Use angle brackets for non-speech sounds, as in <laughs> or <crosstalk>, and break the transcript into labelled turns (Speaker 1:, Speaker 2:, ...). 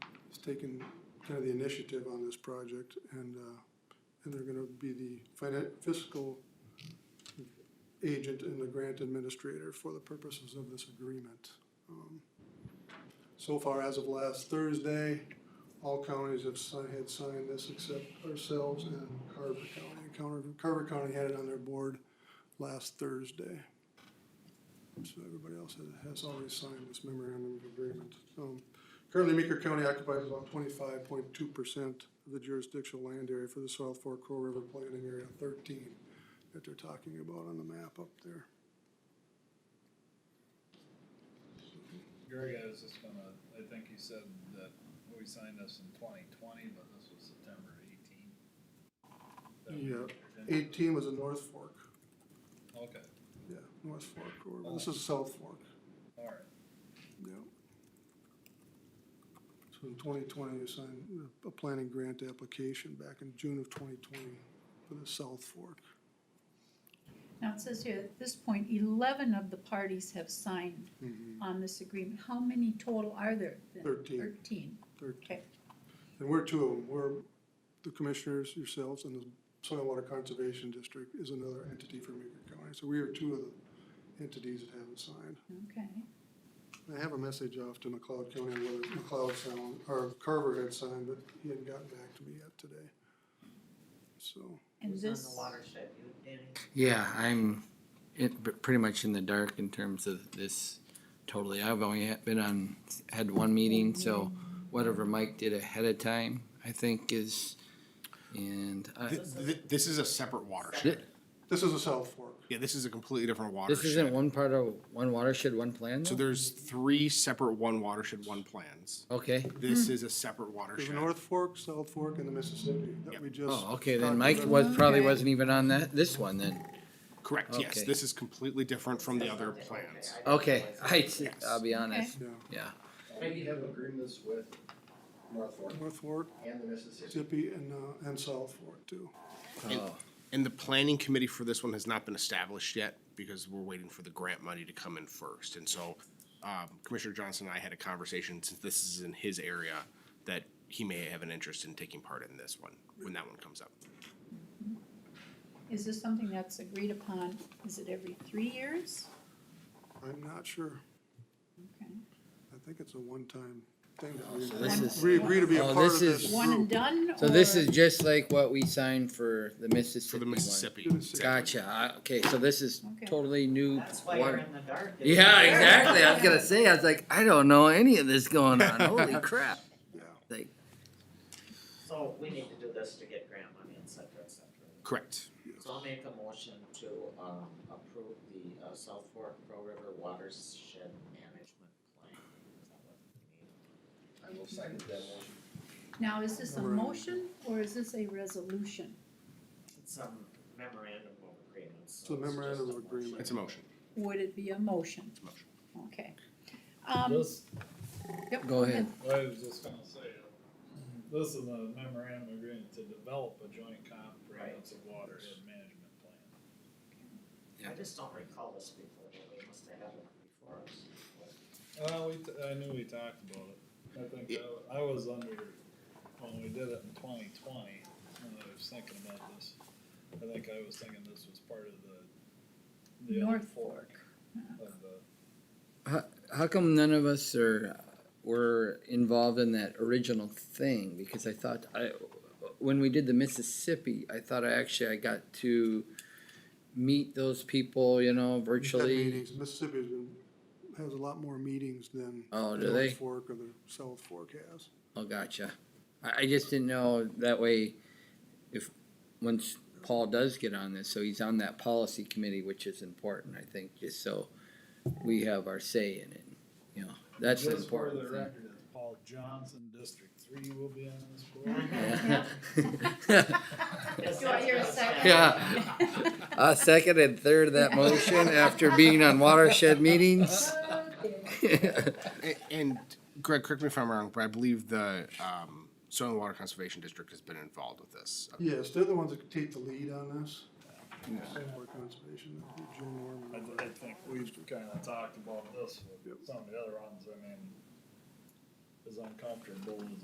Speaker 1: taken kind of the initiative on this project and, uh, and they're gonna be the finan- fiscal agent and the grant administrator for the purposes of this agreement. Um, So far, as of last Thursday, all counties have si- had signed this except ourselves and Carver County. Carver, Carver County had it on their board last Thursday. So everybody else has, has already signed this memorandum of agreement. Um, currently, Meeker County occupies about twenty-five point two percent of the jurisdictional land area for the South Fork Crow River Planning Area thirteen that they're talking about on the map up there.
Speaker 2: Greg, I was just gonna, I think you said that we signed this in twenty twenty, but this was September eighteen. That we
Speaker 1: Yeah,
Speaker 2: entered into.
Speaker 1: Eighteen was a North Fork,
Speaker 2: Okay,
Speaker 1: yeah, North Fork, or this is South Fork,
Speaker 2: alright,
Speaker 1: yeah. So in twenty twenty, you signed a- a planning grant application back in June of twenty twenty for the South Fork.
Speaker 3: Now, it says here, at this point, eleven of the parties have signed
Speaker 4: Mm-hmm.
Speaker 3: on this agreement. How many total are there then?
Speaker 1: Thirteen.
Speaker 3: Thirteen,
Speaker 1: Thirteen.
Speaker 3: okay.
Speaker 1: And we're two of them, we're the commissioners, yourselves, and the Soil and Water Conservation District is another entity for Meeker County. So we are two of the entities that haven't signed.
Speaker 3: Okay,
Speaker 1: I have a message off to McLeod County on whether McLeod sound, or Carver had signed, but he hadn't gotten back to me yet today. So,
Speaker 3: and
Speaker 5: Who's on
Speaker 3: this,
Speaker 5: the watershed, you, Danny?
Speaker 4: Yeah, I'm in, pr- pretty much in the dark in terms of this totally. I've only had- been on, had one meeting, so whatever Mike did ahead of time, I think is, and I,
Speaker 6: Th- th- This is a separate watershed.
Speaker 4: thi-
Speaker 1: this is a South Fork.
Speaker 6: Yeah, this is a completely different
Speaker 4: this isn't
Speaker 6: watershed.
Speaker 4: one part of one watershed, one plan
Speaker 6: So
Speaker 4: though?
Speaker 6: there's three separate one watershed, one plans.
Speaker 4: Okay,
Speaker 6: This is a separate
Speaker 1: There's a
Speaker 6: watershed.
Speaker 1: North Fork, South Fork, and the Mississippi that we just.
Speaker 4: oh, okay,
Speaker 1: talked
Speaker 4: then Mike
Speaker 1: about.
Speaker 4: was, probably
Speaker 3: Okay.
Speaker 4: wasn't even on that, this one then.
Speaker 6: Correct, yes.
Speaker 4: Okay.
Speaker 6: This is completely different from the other
Speaker 5: Okay, I
Speaker 6: plans.
Speaker 5: didn't
Speaker 4: Okay, <laughs>
Speaker 5: realize that.
Speaker 4: I, I'll be honest,
Speaker 1: Yeah,
Speaker 4: yeah.
Speaker 7: We have agreements with North Fork
Speaker 1: North Fork,
Speaker 7: and the Mississippi.
Speaker 1: Mississippi, and, uh, and South Fork too.
Speaker 4: Oh,
Speaker 6: And the planning committee for this one has not been established yet because we're waiting for the grant money to come in first. And so um, Commissioner Johnson and I had a conversation, since this is in his area, that he may have an interest in taking part in this one, when that one comes up.
Speaker 3: is this something that's agreed upon? Is it every three years?
Speaker 1: I'm not sure.
Speaker 3: Okay.
Speaker 1: I think it's a one-time thing. that
Speaker 4: So this
Speaker 1: we-
Speaker 4: is-
Speaker 1: We agree to be a
Speaker 4: Oh,
Speaker 1: part of
Speaker 4: this
Speaker 1: this
Speaker 4: is-
Speaker 3: One and
Speaker 1: group.
Speaker 3: done, or?
Speaker 4: So this is just like what we signed for the
Speaker 6: For
Speaker 4: Mississippi
Speaker 6: the
Speaker 4: one.
Speaker 6: Mississippi.
Speaker 4: Gotcha, I- okay, so this is
Speaker 3: Okay.
Speaker 4: totally new.
Speaker 5: That's why
Speaker 4: water-
Speaker 5: you're in the dark. isn't
Speaker 4: Yeah,
Speaker 5: it?
Speaker 4: exactly. I was gonna say, I was like, I don't know any of this going on. Holy crap.
Speaker 1: Yeah.
Speaker 4: Like,
Speaker 5: <laughs> So we need to do this to get grant money, et cetera, et cetera.
Speaker 6: Correct.
Speaker 5: So I'll make a motion to, um, approve the, uh, South Fork Pro River Watershed Management Plan. Is that what we need?
Speaker 7: I will second that motion.
Speaker 3: Now, is this a
Speaker 1: Right.
Speaker 3: motion, or is this a resolution?
Speaker 5: It's a memorandum of agreement, so.
Speaker 1: It's a memorandum
Speaker 5: just a
Speaker 1: of agreement.
Speaker 6: It's a motion.
Speaker 3: Would it be a motion?
Speaker 6: It's a motion.
Speaker 3: Okay. Um,
Speaker 2: this,
Speaker 3: yep,
Speaker 4: Go ahead.
Speaker 2: I was just gonna say, uh, this is a memorandum agreement to develop a joint comprehensive watershed management plan.
Speaker 5: I just don't recall this before, but we must have had it before us.
Speaker 2: Well, we, t- I knew we talked about it, I think,
Speaker 6: Yeah.
Speaker 2: I- I was under, when we did it in twenty twenty, when I was thinking about this, I think I was thinking this was part of the. the other
Speaker 3: North Fork.
Speaker 2: Of the,
Speaker 4: how come none of us are were involved in that original thing? Because I thought I, when we did the Mississippi, I thought I actually I got to meet those people, you know,
Speaker 1: We've had
Speaker 4: virtually.
Speaker 1: meetings. Mississippi has a lot more meetings than.
Speaker 4: Oh, do
Speaker 1: North
Speaker 4: they?
Speaker 1: Fork or the South Fork has.
Speaker 4: Oh, gotcha. I, I just didn't know that way. If once Paul does get on this, so he's on that policy committee, which is important, I think, just so we have our say in it. You know, that's the
Speaker 2: Just for
Speaker 4: important
Speaker 2: the
Speaker 4: thing.
Speaker 2: record, it's Paul Johnson, District Three will be on this
Speaker 4: Yeah.
Speaker 3: <laughs>
Speaker 2: board.
Speaker 4: <laughs>
Speaker 5: Yes,
Speaker 3: Do I hear a
Speaker 5: that's what
Speaker 3: second?
Speaker 5: it said.
Speaker 4: A Uh, second and third of that motion after being on watershed meetings.
Speaker 3: Okay.
Speaker 6: A- And Greg, correct me if I'm wrong, but I believe the um, Soil and Water Conservation District has been involved with this.
Speaker 1: Yes, they're the ones that take the lead on this. Soil Water Conservation, I think Joe
Speaker 2: I,
Speaker 1: Norman.
Speaker 2: I think we've kinda talked about this with some of the other ones, I mean, as uncomfortable as